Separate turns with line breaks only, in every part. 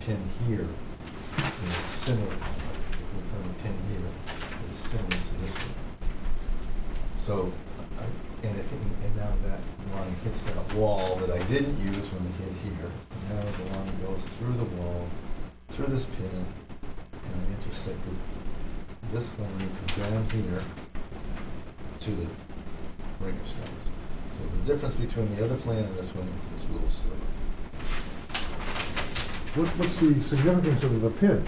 pin here is similar, we found a pin here is similar to this one. So, I, and it, and now that line hits that wall that I didn't use when it hit here, now the line goes through the wall, through this pin, and I intersected this line from down here to the ring of stones. So the difference between the other plan and this one is this little sliver.
What, what's the significance of the pin?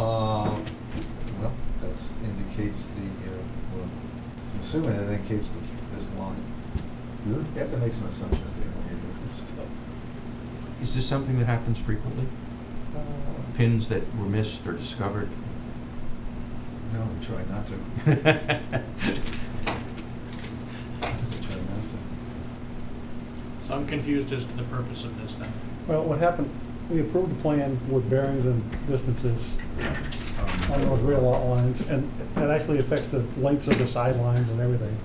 Uh, well, that's indicates the, uh, well, I'm assuming it indicates the, this line. You have to make some assumptions, you know, when you're doing this stuff.
Is this something that happens frequently?
Uh,
Pins that were missed or discovered?
No, we try not to. We Try not
So I'm confused as to the purpose of this then.
Well, what happened, we approved the plan with bearings and distances
to. Um,
on those rear lot lines, and that actually affects the lengths of the sidelines and everything,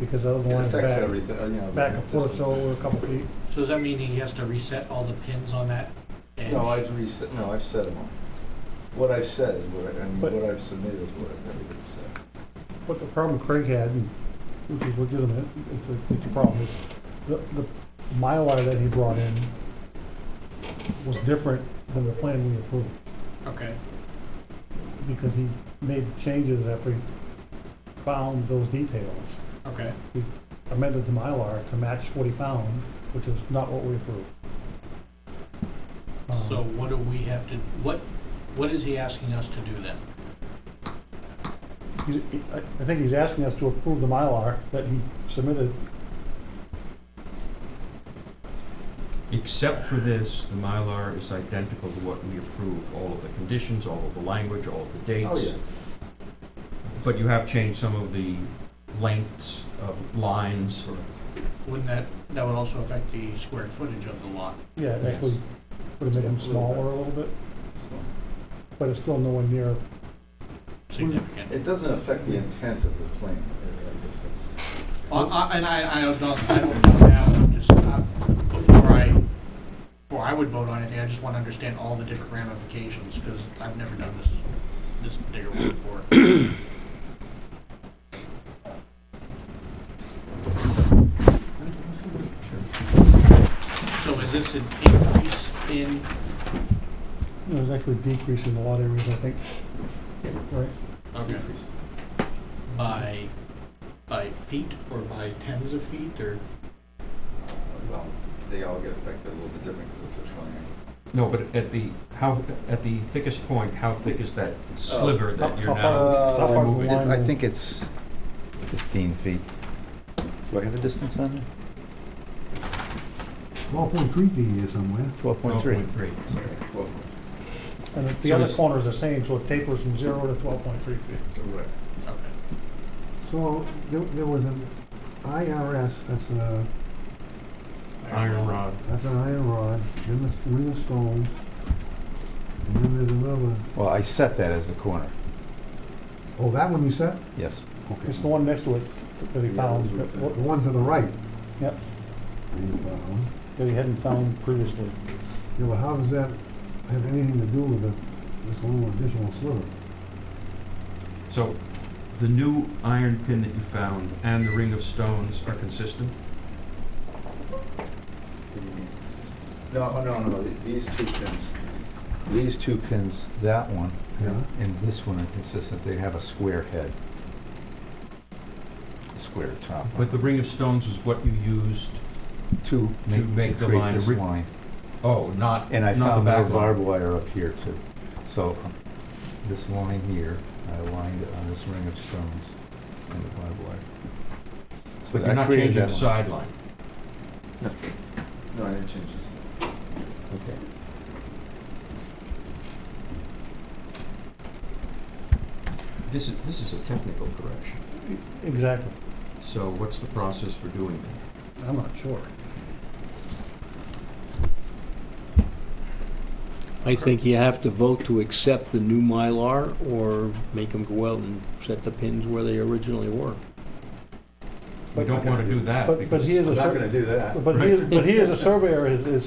because the other
It
line's
affects
back,
everything, uh, you know.
back
the
a foot or so,
distances.
or a couple feet.
So does that mean he has to reset all the pins on that edge?
No, I've reset, no, I've set them all. What I've said is what, I- and
But-
what I've submitted is what everything's said.
What the problem Craig had, and which is legitimate, it's a, it's a problem, is the, the Mylar that he brought in was different than the plan we approved,
Okay,
because he made changes after he found those details.
okay.
amended the Mylar to match what he found, which is not what we approved. Um,
So what do we have to, what, what is he asking us to do then?
he's- he- I I think he's asking us to approve the Mylar that he submitted.
Except for this, the Mylar is identical to what we approved, all of the conditions, all of the language, all of the dates.
Oh, yeah.
But you have changed some of the lengths of lines.
Correct.
Wouldn't that, that would also affect the square footage of the lot?
Yeah, it actually would have made him smaller a little bit,
So-
but it's still nowhere near,
Significant.
It doesn't affect the intent of the plan, I guess that's.
Uh, uh, And I, I don't, I don't know now, I'm just, uh, before I, before I would vote on anything, I just want to understand all the different ramifications, because I've never done this, this particular one before. So is this an increase in,
it was actually decreasing a lot of areas, I think. Right?
okay, by, by feet or by tens of feet, or?
uh, Well, they all get affected a little bit different because it's a triangle.
No, but at the, how, at the thickest point, how thick is that sliver
Oh,
that
How-
you're
how far-
uh,
now?
how far
removing-
the line
I
is-
think it's 15 feet. Do I have a distance on there?
Twelve point three D is somewhere.
Oh,
12.3.
12.3.
Well,
And the- the
So
other
it's-
corner is the same, so it tapers from zero to twelve point three feet.
right.
Okay.
So there, there was an IRS, that's a,
Iron rod.
that's an iron rod, then the ring of stones, and then there's another,
Well, I set that as the corner,
oh, that one you said?
yes.
Okay.
It's the one next to it that he
Yeah,
found,
those
The
that
the one to the right.
Yep.
You found.
that he hadn't found previously.
Yeah, but how does that have anything to do with the, this little additional sliver?
So the new iron pin that you found and the ring of stones are consistent?
No, oh, no, no, the- these two pins.
These two pins, that one
Yeah.
and this one are consistent, they have a square head. A square top.
But the ring of stones is what you used,
To
make
make,
the
to
line
create this
ri-
line.
oh, not,
And I
not the
found my
back line.
barbed wire up here too. So um, this line here, I aligned it on this ring of stones and the barbed wire. So
But
I
you're not
created
changing
that
the
line.
sideline.
No, I didn't change this.
Okay.
This is, this is a technical correction.
Exactly.
So what's the process for doing that?
I'm not sure.
I think you have to vote to accept the new Mylar or make them go out and set the pins where they originally were.
We
But-
don't want to do that
But, but
because
he is
I'm
a
not
sur-
gonna do that.
but he is, but he is a surveyor, is, is